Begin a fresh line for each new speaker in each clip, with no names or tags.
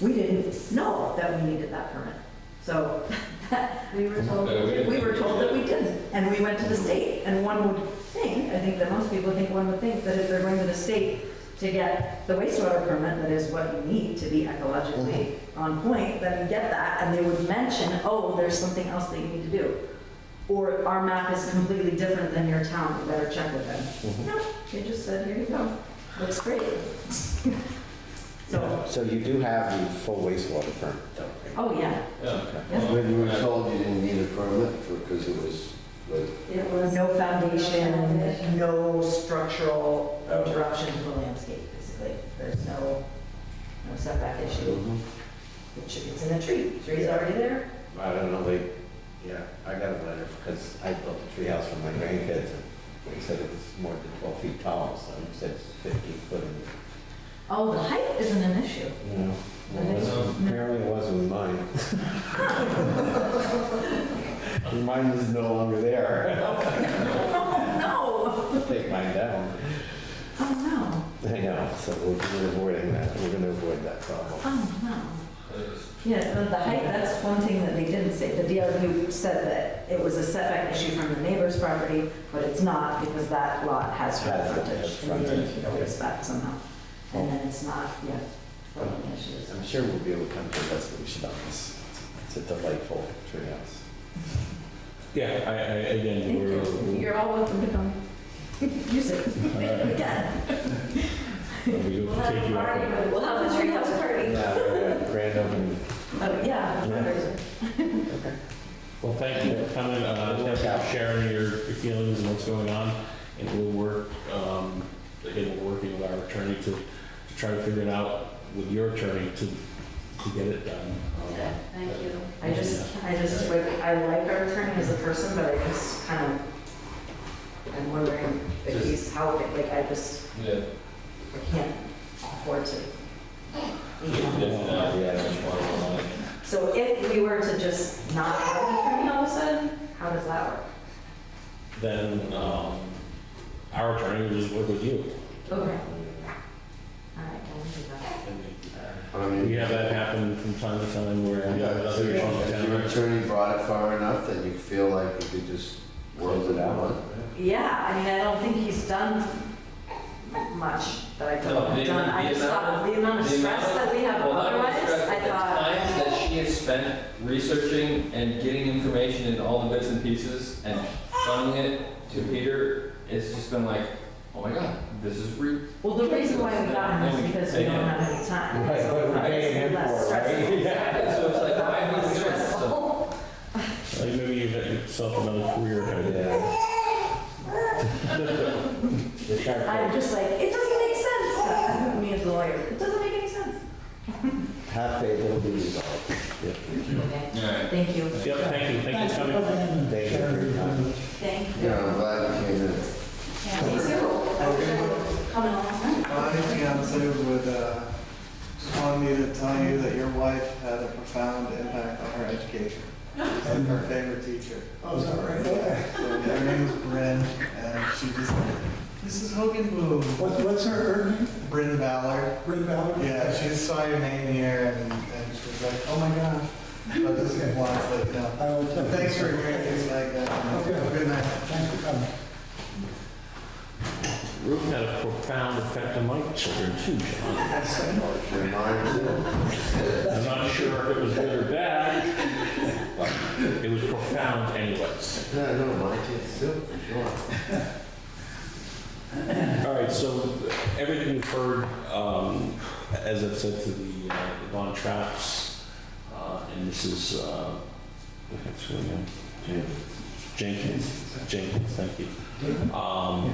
we didn't know that we needed that permit. So we were told,
Yeah, we Mm-hmm. didn't.
we were told that we didn't, and we went to the state. And one would think, I think that most people think one would think that if they're going to the state to get the wastewater permit, that is what you need to be ecologically
Mm-hmm.
on point, then you get that, and they would mention, oh, there's something else that you need to do. Or our map is completely different than your town, you better check with
Mm-hmm.
them. No, they just said, here you go, looks great. So,
So you do have the full wastewater permit though?
oh yeah,
Yeah.
Yeah.
When you were told you didn't need a permit for, because it was like
It was.
no foundation,
Foundation.
no structural interruption to the landscape, basically. There's no, no setback issue. It should- It's in a tree, tree's already there.
I don't know, like, yeah, I got a letter because I built a treehouse for my grandkids. and They said it was more than 12 feet tall, so I said it's 15 foot. and,
Oh, the height isn't an issue.
You know, well, it was- apparently it wasn't mine. Mine is no longer there.
No,
Take mine down.
oh
I know, so we're we're avoiding that. We're going to avoid that
no,
problem.
oh no. Yeah, the- the height, that's one thing that they didn't say. The DRB said that it was a setback issue from the neighbor's property, but it's not because that lot has front
Has- has
frontage. And they
frontage,
didn't notice that somehow. And then it's not, yeah, building issues.
I'm sure we'll be able to come to a resolution on this. It's a delightful treehouse.
Yeah, I, I, again,
Thank
we're,
you. You're all welcome to come use it again.
we
We'll
will
have
take
a
you
party,
up.
but
We'll have a treehouse party.
Yeah, yeah, Grand opening.
Oh, yeah. fundraiser.
Well, thank you for coming, uh, thank you for sharing your your feelings and what's going on. And we'll work, um, again, we're working with our attorney to, to try to figure it out with your attorney to, to get it done. Um,
Yeah, Thank you.
I just, I just, like, I like our attorney as a person, but I just kind of, I'm wondering if he's how, like, I just,
Yeah.
I can't afford to. you know.
Yeah.
So if we were to just not have an attorney all of a sudden, how does that work?
Then, um, our attorney will just work with you.
Okay. All right, I will do that.
I mean,
We have that happen from time to time where.
Yeah, if
other
your-
issues
if your
happen.
attorney brought it far enough that you feel like you could just world it out.
Yeah, I mean, I don't think he's done much that I don't
No, the-
have done. I
the
just
amount-
thought the amount of
the amount
stress
of-
that we have
Well, that was
otherwise,
stressful.
I
The
thought,
time that she has spent researching and getting information and all the bits and pieces and funneling it to Peter, it's just been like, oh my god, this is re.
well, the reason why we got him is because we don't have any time.
Right,
So
what we're paying him
it's less
for, right?
stressful.
Yeah, so it's like, why am I doing this? So-
Stressful.
Like maybe you've got yourself another career ahead of you.
Yeah.
I'm just like, it doesn't make sense. Me as a lawyer, it doesn't make any sense.
Have faith, it'll be resolved. Yeah.
Okay,
All right.
thank you.
Yep, thank you, thank you for coming.
Thank you for your time.
Thank you.
Yeah, I'm glad you came in.
Yeah, me too. I wish I would've come along.
My fiance would, uh, just wanted me to tell you that your wife had a profound impact on her education. And her favorite teacher.
Oh, is that right?
So Her name was Bryn, and she just, Mrs. Hogan Bloom,
What, what's her, her name?
Bryn Ballard.
Ray Ballard?
Yeah, she just saw your name here and, and she was like, oh my gosh. But this is one, like, you know.
I will tell you.
Thanks for hearing things like that. Have a Good night.
Thanks for coming.
Ruth had a profound effect on my children too, John.
Your mind too.
I'm not sure if it was good or bad, but it was profound anyways.
No, no, mine too, too, for sure.
All right, so everything you've heard, um, as I've said to the uh, Von Traps, uh, and this is, uh, what's her name? Jenkins, Jenkins, thank you. Um,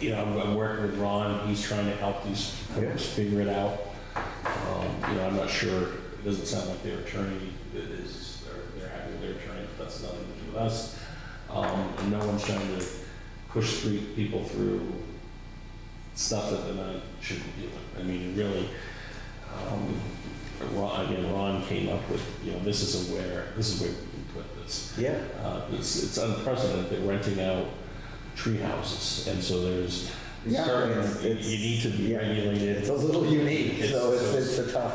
You know, I'm- I'm working with Ron, he's trying to help these folks figure it out. Um, You know, I'm not sure, it doesn't sound like their attorney is, they're- they're happy with their attorney, but that's nothing to do with us. Um, And no one's trying to push through people through stuff that they're not shouldn't be doing. I mean, it really, um, Ron, again, Ron came up with, you know, this is a where, this is where we can put this.
Yeah.
Uh, it's, it's unprecedented, they're renting out tree houses, and so there's
Yeah,
certain,
it's-
you
it's-
need to be
yeah.
regulated.
It's a little unique, so it's, it's a tough